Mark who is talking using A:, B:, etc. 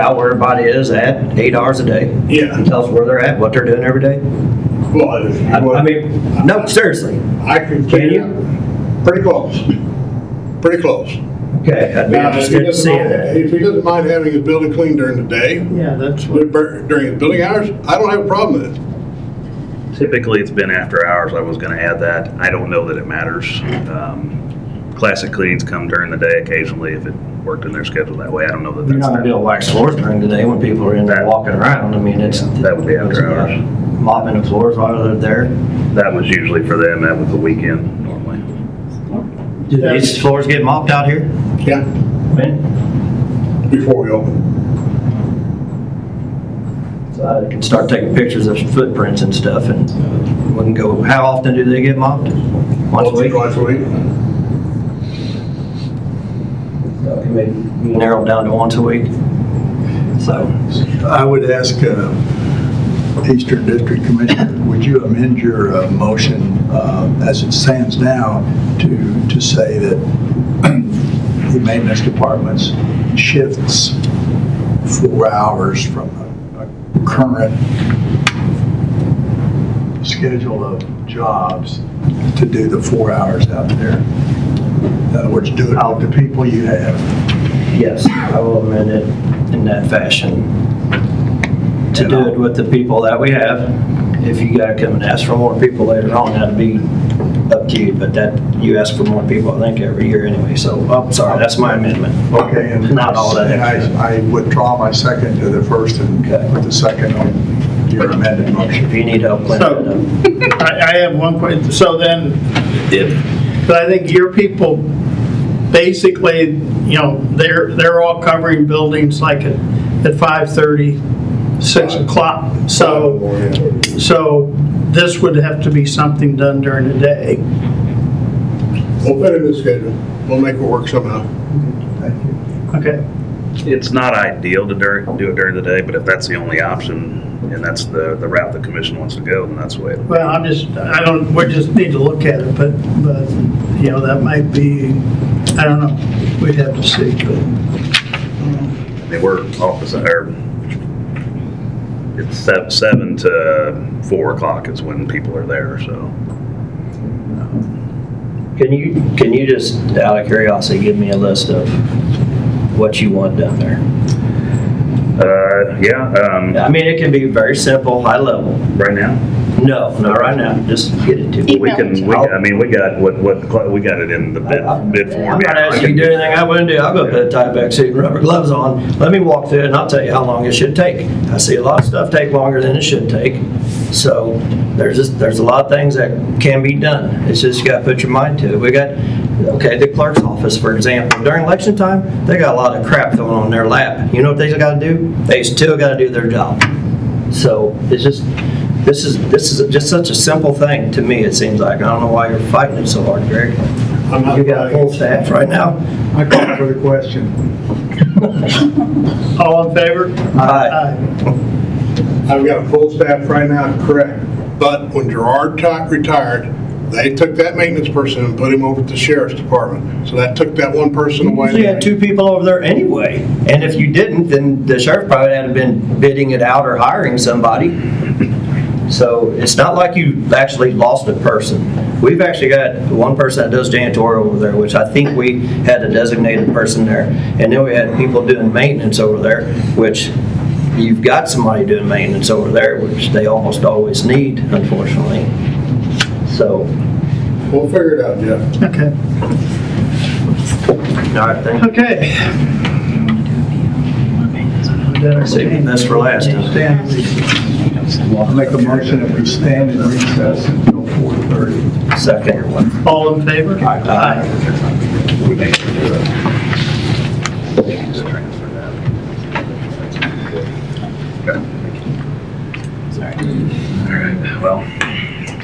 A: out where everybody is at eight hours a day?
B: Yeah.
A: And tell us where they're at, what they're doing every day?
B: Well, if you
A: I, I
B: want-
A: mean, no, seriously.
B: I could
A: Can
B: figure
A: you?
B: out, pretty close, pretty close.
A: Okay, I'd be
B: Now, if
A: interested
B: he
A: in
B: doesn't
A: seeing
B: mind-
A: that.
B: If he doesn't mind having his building cleaned during the day,
C: Yeah, that's what,
B: during his building hours, I don't have a problem with it.
D: Typically, it's been after hours. I was going to add that. I don't know that it matters. Um, Classic cleans come during the day occasionally if it worked in their schedule that way. I don't know that
A: You're not gonna be
D: that's.
A: able to wax floors during the day when people are in there
D: That-
A: walking around. I mean, it's.
D: That would be after hours.
A: Mopping the floors while they're there.
D: That was usually for them. That was the weekend normally.
A: Do these floors get mopped out here?
B: Yeah.
A: When?
B: Before we open.
A: So I can start taking pictures of footprints and stuff and we can go, how often do they get mopped? Once a
B: Once or
A: week?
B: Twice a week.
A: So can we Narrow it down to once a week. So.
E: I would ask uh, Eastern District Commissioner, would you amend your uh, motion uh, as it stands now to, to say that the maintenance department's shifts four hours from a a current schedule of jobs to do the four hours out there? In other words, do it with the people you have.
A: Yes, I will amend it in that fashion. To do it with the people that we have. If you gotta come and ask for more people later on, that'd be up to you, but that, you ask for more people, I think, every year anyway, so, oh, sorry, that's my amendment.
E: Okay, and
A: Not all that
E: and
A: extra.
E: I I withdraw my second to the first and put the second on your amended
A: If
E: motion.
A: you need help cleaning it uh, up.
C: I, I have one question, so then, if, but I think your people, basically, you know, they're, they're all covering buildings like at, at 5:30, 6 o'clock,
A: Oh,
C: so, so this would have to be something done during the day.
B: We'll fit in the schedule. We'll make it work somehow.
E: Thank you.
C: Okay,
D: It's not ideal to dur- do it during the day, but if that's the only option and that's the, the route the commission wants to go, then that's the way. it'll-
C: well, I'm just, I don't, we just need to look at it, but, but, you know, that might be, I don't know, we'd have to see, but,
D: I mean, we're office, or it's sev- seven to four o'clock is when people are there, so.
A: Can you, can you just, out of curiosity, give me a list of what you want done there?
D: Uh, yeah, um,
A: I mean, it can be very simple, high level.
D: right now.
A: No, not right now, just get it to me.
D: We can, we, I mean, we got, what, what, we got it in the bid, bid
A: I'm
D: form.
A: not asking you to do anything I wouldn't do. I'll go put a tie back suit and rubber gloves on. Let me walk through it and I'll tell you how long it should take. I see a lot of stuff take longer than it should take. So there's just, there's a lot of things that can be done. It's just you gotta put your mind to it. We got, okay, the clerk's office, for example, during election time, they got a lot of crap going on in their lap. You know what they still gotta do? They still gotta do their job. So it's just, this is, this is just such a simple thing to me, it seems like. I don't know why you're fighting it so hard, Greg.
B: I'm not
A: You got a
B: buying
A: full staff right now?
E: I call for the question.
C: all in favor?
A: Aye.
B: I've got a full staff right now, correct. But when Gerard Tot retired, they took that maintenance person and put him over at the sheriff's department. So that took that one person away.
A: You had two people over there anyway, and if you didn't, then the sheriff probably had been bidding it out or hiring somebody. So it's not like you actually lost a person. We've actually got one person that does janitorial over there, which I think we had a designated person there. And then we had people doing maintenance over there, which you've got somebody doing maintenance over there, which they almost always need, unfortunately. So,
B: We'll figure it out, Jeff.
C: Okay,
A: all right, thank you.
C: okay.
A: Saving this for last.
C: Stand.
E: I'll make a motion if we stand in recess until 4:30.
A: Second.
C: All in favor? Aye.
E: We need to do it.